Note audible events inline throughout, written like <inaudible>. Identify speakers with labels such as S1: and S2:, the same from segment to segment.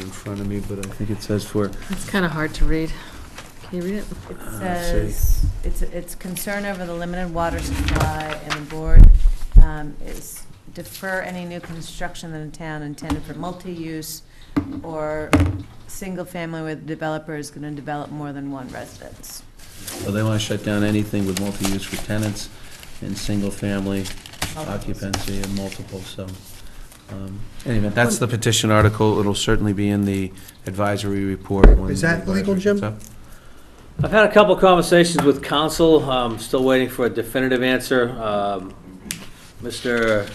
S1: in front of me, but I think it says for,
S2: It's kind of hard to read. Can you read it?
S1: Uh,
S3: It
S1: let's see.
S3: says, it's, it's concern over the limited water supply, and the board um, is defer any new construction in the town intended for multi-use or single-family where the developer is going to develop more than one residence.
S1: well, they want to shut down anything with multi-use for tenants and single-family occupancy and multiple, so. um, Anyway, that's the petition article. It'll certainly be in the advisory report when.
S4: Is
S1: the
S4: that legal,
S1: advisory
S4: Jim?
S1: comes up.
S5: I've had a couple conversations with council, um, still waiting for a definitive answer. Um, Mr.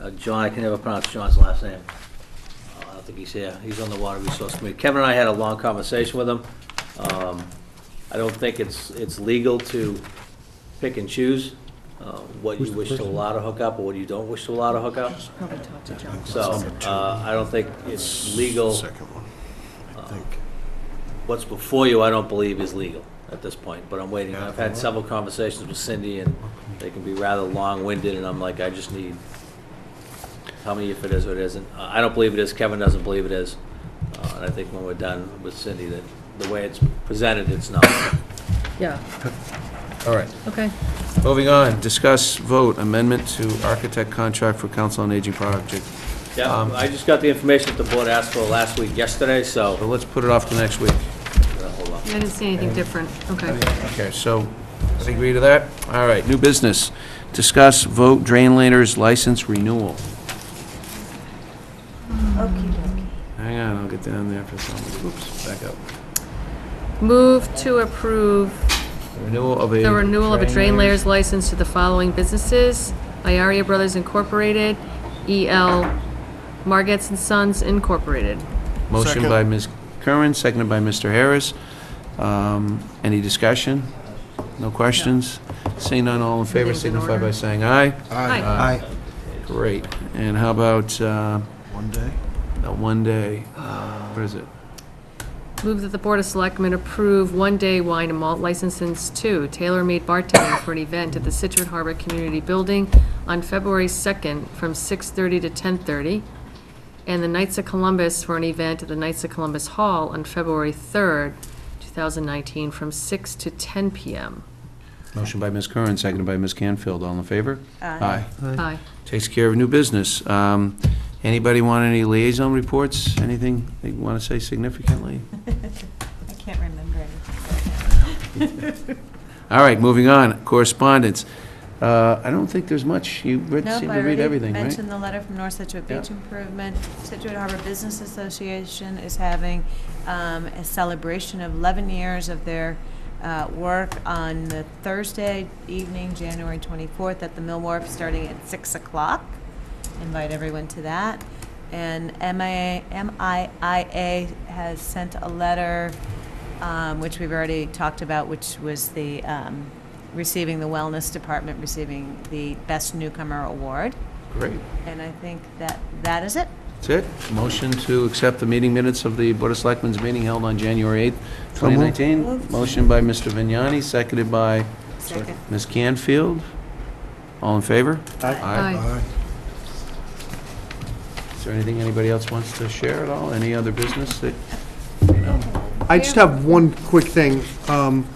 S5: uh, John, I can never pronounce John's last name. Uh, I don't think he's here, he's on the Water Resource Committee. Kevin and I had a long conversation with him. Um, I don't think it's, it's legal to pick and choose uh, what you wish to allow to hook up or what you don't wish to allow to hook up.
S2: Probably talk to John.
S5: So, uh, I don't think it's legal.
S4: one,
S5: I think. What's before you, I don't believe is legal at this point, but I'm waiting. I've had several conversations with Cindy, and they can be rather long-winded, and I'm like, I just need, tell me if it is or it isn't. Uh, I don't believe it is, Kevin doesn't believe it is, Uh, and I think when we're done with Cindy, that the way it's presented, it's not.
S2: Yeah,
S1: All right.
S2: okay.
S1: Moving on, discuss vote amendment to architect contract for council on aging project.
S5: Yeah,
S1: Um,
S5: I just got the information that the board asked for last week, yesterday, so,
S1: But let's put it off to next week.
S5: uh, hold on.
S2: I didn't see anything different. Okay.
S1: Okay, so, does he agree to that? All right, new business. Discuss vote drain laners license renewal. Hang on, I'll get down there for some, oops, back up.
S2: Move to approve
S1: Renewal of a.
S2: the renewal of a drain layers license to the following businesses. Iaria Brothers Incorporated, EL Margets and Sons Incorporated.
S1: Motion by Ms. Curran, seconded by Mr. Harris. Um, Any discussion? No questions? Seeing none, all in favor,
S2: Everything's in
S1: signify by
S2: order.
S1: saying aye.
S2: Aye.
S4: Aye.
S1: Great. And how about uh,
S4: One day? Uh,
S1: that one day? What is it?
S2: Move that the Board of Selectmen approve one-day wine and malt licenses to Tailor Made Bartending for an event at the Situate Harbor Community Building on February 2nd from 6:30 to 10:30, and the Knights of Columbus for an event at the Knights of Columbus Hall on February 3rd, 2019, from 6 to 10 p.m.
S1: Motion by Ms. Curran, seconded by Ms. Canfield. All in favor?
S3: Aye.
S2: Aye.
S1: Takes care of new business. Um, Anybody want any liaison reports? Anything they want to say
S3: <laughs>
S1: significantly?
S3: I can't remember
S1: All right, moving on. Correspondence. Uh, I don't think there's much. You read-
S3: Nope,
S1: seem
S3: I
S1: to read
S3: already
S1: everything, right?
S3: mentioned the letter from North Situate
S1: Yeah.
S3: Beach Improvement. Situate Harbor Business Association is having um, a celebration of 11 years of their uh, work on the Thursday evening, January 24th, at the Mill Wharf, starting at 6 o'clock. Invite everyone to that. And MIA MIIA has sent a letter, um, which we've already talked about, which was the um, receiving the Wellness Department, receiving the Best Newcomer Award.
S1: Great.
S3: And I think that, that is it.
S1: That's it. Motion to accept the meeting minutes of the Board of Selectmen's meeting held on January 8th, 2019. Motion by Mr. Vignani, seconded by
S3: Second.
S1: Ms. Canfield. All in favor? Aye.
S4: Aye.
S1: Is there anything anybody else wants to share at all? Any other business that,
S4: I just have one quick thing. Um,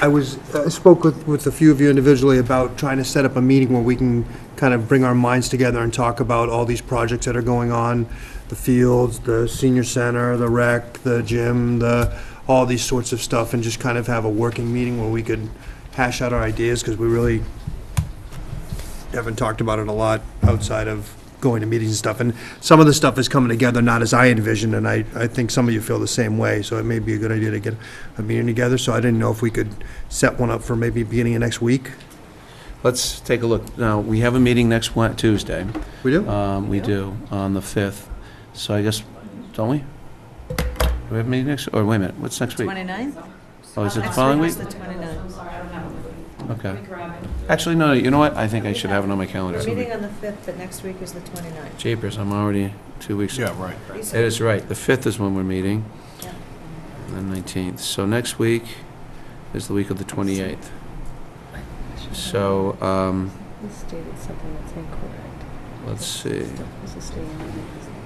S4: I was, I spoke with, with a few of you individually about trying to set up a meeting where we can kind of bring our minds together and talk about all these projects that are going on, the fields, the senior center, the rec, the gym, the, all these sorts of stuff, and just kind of have a working meeting where we could hash out our ideas, because we really haven't talked about it a lot outside of going to meetings and stuff. And some of the stuff is coming together not as I envisioned, and I, I think some of you feel the same way. So it may be a good idea to get a meeting together. So I didn't know if we could set one up for maybe beginning of next week.
S1: let's take a look. Now, we have a meeting next Wed- Tuesday.
S4: We do?
S1: Um, We do, on the 5th. So I guess, don't we? Do we have a meeting next, or wait a minute, what's next week?
S3: 29th?
S1: Oh, is it the following week?
S3: Next week is the 29th.
S1: Okay. Actually, no, you know what? I think I should have it on my calendar.
S3: We're meeting on the 5th, but next week is the 29th.
S1: Japers, I'm already two weeks. Yeah, right.
S3: You
S1: That
S3: said-
S1: is right. The 5th is when we're meeting,
S3: Yeah.
S1: and the 19th. So next week is the week of the 28th. So, um,
S2: This stated something that's incorrect.
S1: let's see.
S2: This is stating